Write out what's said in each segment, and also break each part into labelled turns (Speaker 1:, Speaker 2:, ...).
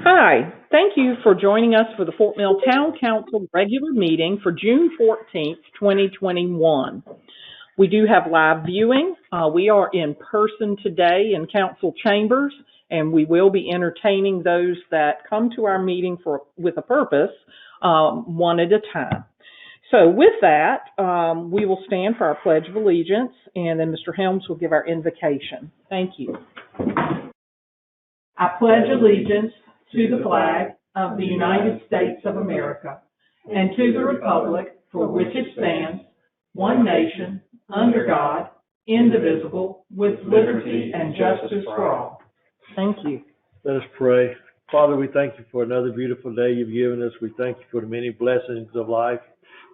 Speaker 1: Hi, thank you for joining us for the Fort Mill Town Council regular meeting for June fourteenth, twenty twenty-one. We do have live viewing. Uh, we are in person today in council chambers, and we will be entertaining those that come to our meeting for, with a purpose, um, one at a time. So with that, um, we will stand for our pledge of allegiance, and then Mr. Helms will give our invocation. Thank you. I pledge allegiance to the flag of the United States of America and to the republic for which it stands, one nation, under God, indivisible, with liberty and justice for all. Thank you.
Speaker 2: Let us pray. Father, we thank you for another beautiful day you've given us. We thank you for the many blessings of life.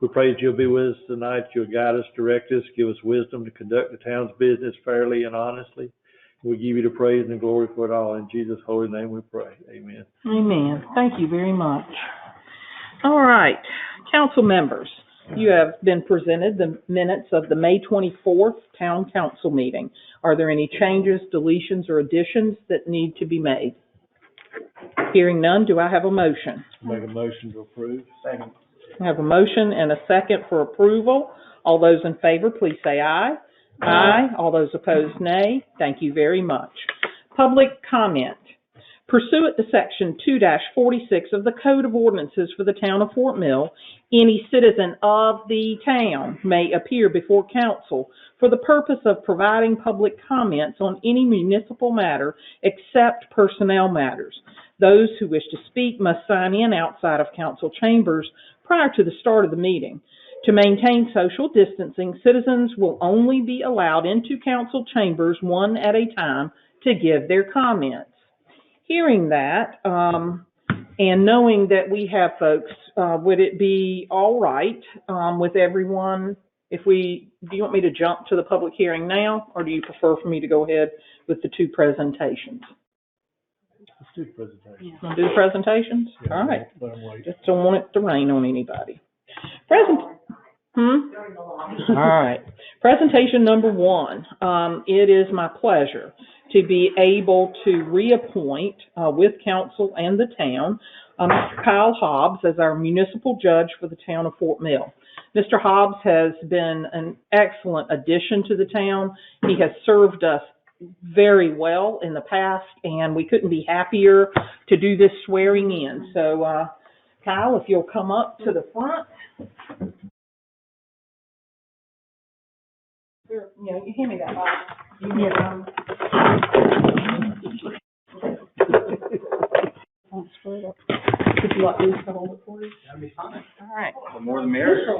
Speaker 2: We pray that you'll be with us tonight. You'll guide us, direct us, give us wisdom to conduct the town's business fairly and honestly. We give you the praise and the glory for it all. In Jesus' holy name we pray. Amen.
Speaker 1: Amen. Thank you very much. All right, council members, you have been presented the minutes of the May 24th Town Council meeting. Are there any changes, deletions, or additions that need to be made? Hearing none, do I have a motion?
Speaker 2: Make a motion to approve. Second.
Speaker 1: I have a motion and a second for approval. All those in favor, please say aye. Aye. All those opposed, nay. Thank you very much. Public comment. Pursuant to Section 2-46 of the Code of Ordinances for the Town of Fort Mill, any citizen of the town may appear before council for the purpose of providing public comments on any municipal matter except personnel matters. Those who wish to speak must sign in outside of council chambers prior to the start of the meeting. To maintain social distancing, citizens will only be allowed into council chambers one at a time to give their comments. Hearing that, um, and knowing that we have folks, uh, would it be all right, um, with everyone? If we, do you want me to jump to the public hearing now, or do you prefer for me to go ahead with the two presentations?
Speaker 2: Let's do the presentation.
Speaker 1: Want to do the presentations? All right.
Speaker 2: Let 'em wait.
Speaker 1: Just don't want it to rain on anybody. Present, hmm? All right. Presentation number one, um, it is my pleasure to be able to reappoint, uh, with council and the town, uh, Mr. Kyle Hobbs as our municipal judge for the town of Fort Mill. Mr. Hobbs has been an excellent addition to the town. He has served us very well in the past, and we couldn't be happier to do this swearing in. So, uh, Kyle, if you'll come up to the front. Here, You know, you hand me that Bible. You can, um, I'll screw it up. Would you like me to hold it for you? All right.
Speaker 3: The more the merrier.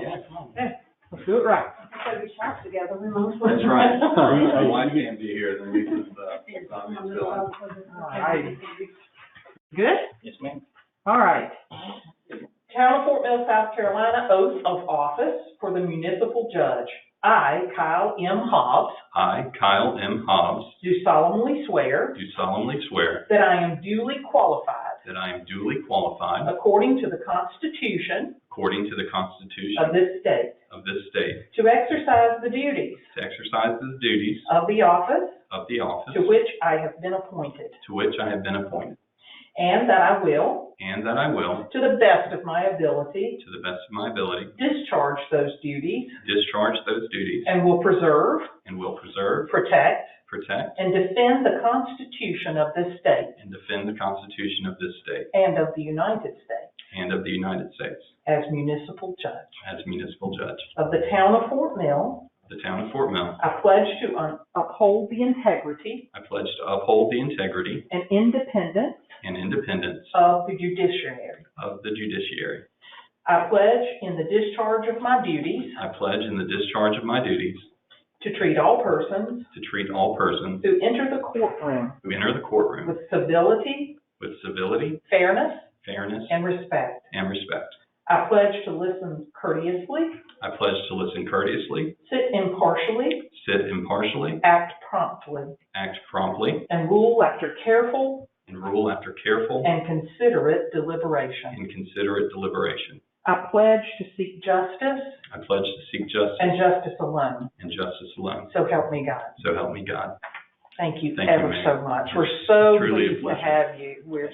Speaker 1: Let's do it right.
Speaker 3: That's right. My wife can't be here, then we just, uh, I'm just filling.
Speaker 1: All right. Good?
Speaker 3: Yes, ma'am.
Speaker 1: All right. Town of Fort Mill, South Carolina, oath of office for the municipal judge. I, Kyle M. Hobbs,
Speaker 3: I, Kyle M. Hobbs,
Speaker 1: do solemnly swear
Speaker 3: do solemnly swear
Speaker 1: that I am duly qualified,
Speaker 3: that I am duly qualified,
Speaker 1: according to the Constitution
Speaker 3: according to the Constitution
Speaker 1: of this state,
Speaker 3: of this state,
Speaker 1: to exercise the duties
Speaker 3: to exercise the duties
Speaker 1: of the office
Speaker 3: of the office
Speaker 1: to which I have been appointed,
Speaker 3: to which I have been appointed,
Speaker 1: and that I will,
Speaker 3: and that I will,
Speaker 1: to the best of my ability,
Speaker 3: to the best of my ability,
Speaker 1: discharge those duties
Speaker 3: discharge those duties
Speaker 1: and will preserve,
Speaker 3: and will preserve,
Speaker 1: protect,
Speaker 3: protect,
Speaker 1: and defend the Constitution of this state
Speaker 3: and defend the Constitution of this state
Speaker 1: and of the United States
Speaker 3: and of the United States
Speaker 1: as municipal judge
Speaker 3: as municipal judge
Speaker 1: of the town of Fort Mill.
Speaker 3: of the town of Fort Mill.
Speaker 1: I pledge to un- uphold the integrity
Speaker 3: I pledge to uphold the integrity
Speaker 1: and independence
Speaker 3: and independence
Speaker 1: of the judiciary.
Speaker 3: of the judiciary.
Speaker 1: I pledge in the discharge of my duties
Speaker 3: I pledge in the discharge of my duties
Speaker 1: to treat all persons
Speaker 3: to treat all persons
Speaker 1: who enter the courtroom
Speaker 3: who enter the courtroom
Speaker 1: with civility,
Speaker 3: with civility,
Speaker 1: fairness,
Speaker 3: fairness,
Speaker 1: and respect.
Speaker 3: and respect.
Speaker 1: I pledge to listen courteously,
Speaker 3: I pledge to listen courteously,
Speaker 1: sit impartially,
Speaker 3: sit impartially,
Speaker 1: act promptly,
Speaker 3: act promptly,
Speaker 1: and rule after careful
Speaker 3: and rule after careful
Speaker 1: and considerate deliberation.
Speaker 3: and considerate deliberation.
Speaker 1: I pledge to seek justice
Speaker 3: I pledge to seek justice
Speaker 1: and justice alone.
Speaker 3: and justice alone.
Speaker 1: So help me God.
Speaker 3: So help me God.
Speaker 1: Thank you
Speaker 3: Thank you,
Speaker 1: ever
Speaker 3: ma'am.
Speaker 1: so much. We're so
Speaker 3: Truly a
Speaker 1: pleased to
Speaker 3: pleasure.
Speaker 1: have you. We're